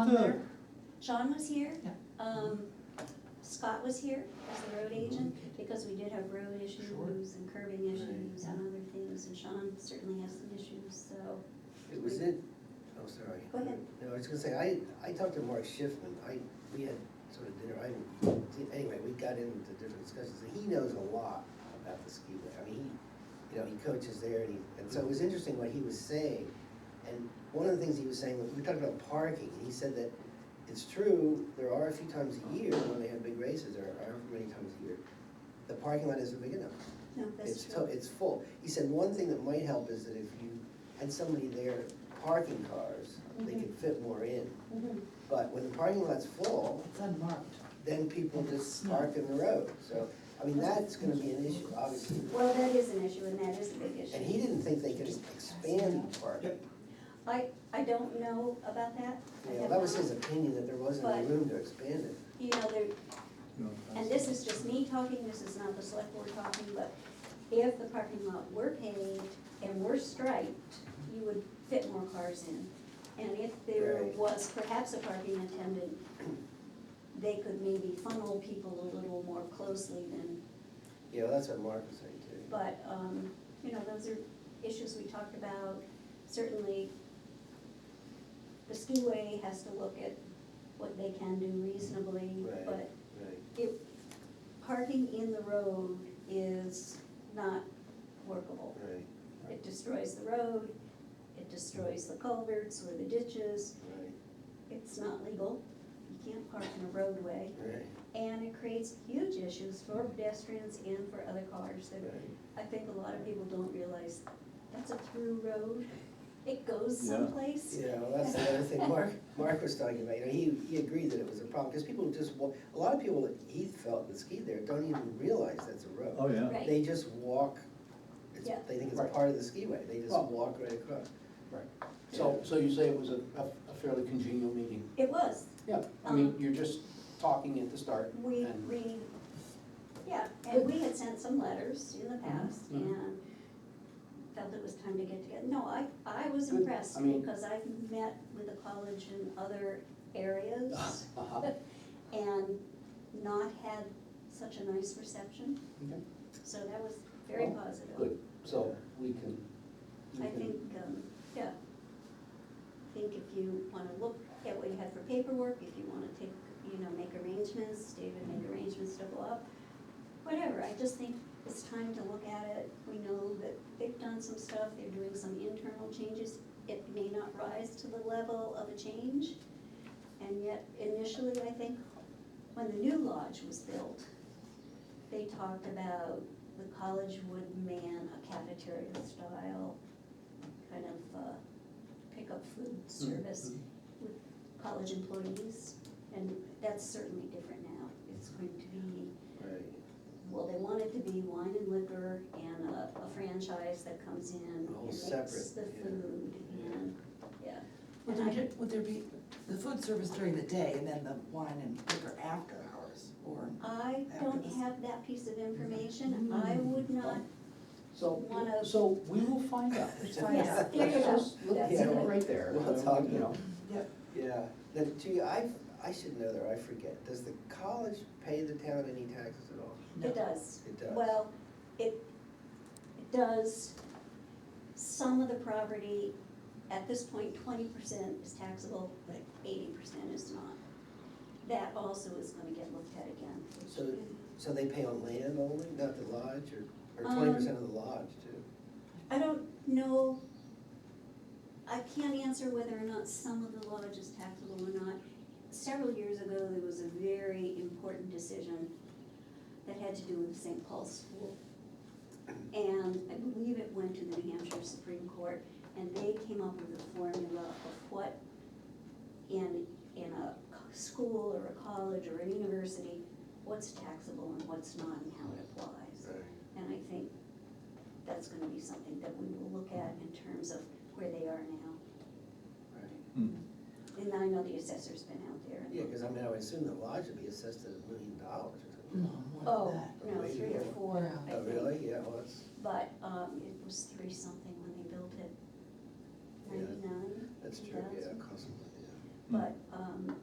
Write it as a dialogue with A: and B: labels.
A: On there?
B: Sean was here.
A: Yeah.
B: Um, Scott was here as the road agent, because we did have road issues and curbing issues and other things, and Sean certainly has some issues, so.
C: It was in, oh, sorry.
B: Go ahead.
C: No, I was gonna say, I, I talked to Mark Schiffman, I, we had sort of dinner, I, anyway, we got into different discussions, and he knows a lot about the skiway, I mean, he, you know, he coaches there, and he, and so it was interesting what he was saying, and one of the things he was saying, we talked about parking, and he said that it's true, there are a few times a year when they have big races, or however many times a year, the parking lot isn't big enough.
B: No, that's
C: It's, to-
B: true.
C: it's full. He said one thing that might help is that if you had somebody there parking cars, they
B: Mm-hmm.
C: could fit more in.
B: Mhm.
C: But when the parking lot's full,
A: It's unmarked.
C: then people just park in the road. So, I mean, that's gonna be an issue, obviously.
B: Well, that is an issue, and that is a big
C: And he
B: issue.
C: didn't think they could expand parking.
B: I, I don't know about that. I
C: You know,
B: have
C: that was
B: not.
C: his opinion, that there wasn't any room to expand it.
B: You know, there,
D: No,
B: And this is just me talking, this is not the select board talking, but if the parking lot were paved and were striped, you would fit more cars in. And if there
C: Right.
B: was perhaps a parking attendant, they could maybe funnel people a little more closely than,
C: You know, that's what Mark was saying too.
B: but, um, you know, those are issues we talked about. Certainly, the skiway has to look at what they can do reasonably,
C: Right.
B: but
C: Right.
B: it, parking in the road is not workable.
C: Right,
B: It destroys the road, it destroys the culverts or the ditches,
C: right,
B: it's not legal, you can't park in a roadway.
C: right,
B: And it creates huge issues for pedestrians and for other cars that
C: right.
B: I think a lot of people don't realize, that's a through road, it goes
D: Yeah.
B: someplace.
C: Yeah, well, that's the other thing Mark, Mark was talking about, you know, he, he agreed that it was a problem, because people just walk, a lot of people that he felt that ski there don't even realize that's a
D: Oh,
C: road.
D: yeah.
B: Right.
C: They just walk, it's,
B: Yeah.
C: they think it's
E: Right.
C: part of the skiway, they just
E: Well-
C: walk right across.
E: Right, so, so you say it was a, a fairly congenial meeting?
B: It was,
E: Yeah, I mean,
B: Um,
E: you're just talking at the start
B: We,
E: and,
B: we, yeah, and we had sent some letters in the past
E: Mhm.
B: and felt it was time to get together. No, I, I was
E: Good.
B: impressed
E: Mm-hmm. I mean-
B: because I've met with the college in other areas
E: uh-huh,
B: and not had such a nice reception,
E: okay,
B: so that was very
E: Well,
B: positive.
E: Oh, good, so we can, we
B: I
E: can-
B: think, um, yeah, I think if you wanna look at what you had for paperwork, if you wanna take, you know, make arrangements, David make arrangements to go up, whatever, I just think it's time to look at it, we know that they've done some stuff, they're doing some internal changes, it may not rise to the level of a change, and yet initially, I think, when the new lodge was built, they talked about the college would man a cafeteria style kind of uh, pickup food service with college employees. And that's certainly different now. It's going to be,
C: Right.
B: well, they want it to be wine and liquor and a a franchise that comes in and
C: A whole
B: makes
C: separate,
B: the
C: yeah.
B: food and, yeah.
A: Would
B: And I
A: there,
B: don't-
A: would there be the food service during the day and then the wine and liquor after hours or?
B: I don't have that piece of information. I would not,
E: so,
B: wanna-
E: so we will find out.
A: find
E: Let's
B: out. There you go.
E: just look-
B: That's
E: yeah,
C: it.
E: Right there,
C: We'll talk.
E: you know,
A: Yep.
C: Yeah, now, do you, I, I should know there, I forget, does the college pay the town any taxes at all?
A: No.
B: it does.
C: It does.
B: Well, it, it does, some of the property, at this point, twenty percent is taxable, but
A: Right.
B: eighty percent is not. That also is gonna get looked at again.
C: So, so they pay on land only, not the lodge, or, or twenty percent of the lodge too?
B: I don't know, I can't answer whether or not some of the lodge is taxable or not. Several years ago, there was a very important decision that had to do with the St. Paul School. And I believe it went to the New Hampshire Supreme Court, and they came up with a formula of what in, in a co- school or a college or a university, what's taxable and what's not and how it applies.
C: Right.
B: And I think that's gonna be something that we will look at in terms of where they are now.
C: Right.
D: Hmm.
B: And I know the assessor's been out there. and-
C: Yeah, because I mean, I would assume the lodge would be assessed at a million dollars or
A: No,
C: something.
A: more
B: Oh,
A: than that.
B: no, three or four, I
A: Yeah.
B: think.
C: Oh, really? Yeah, well, that's,
B: But, um, it was three something when they built it,
C: Yeah.
B: ninety-nine,
C: that's
B: two
C: true, yeah,
B: thousand.
C: cost of money, yeah.
B: but, um,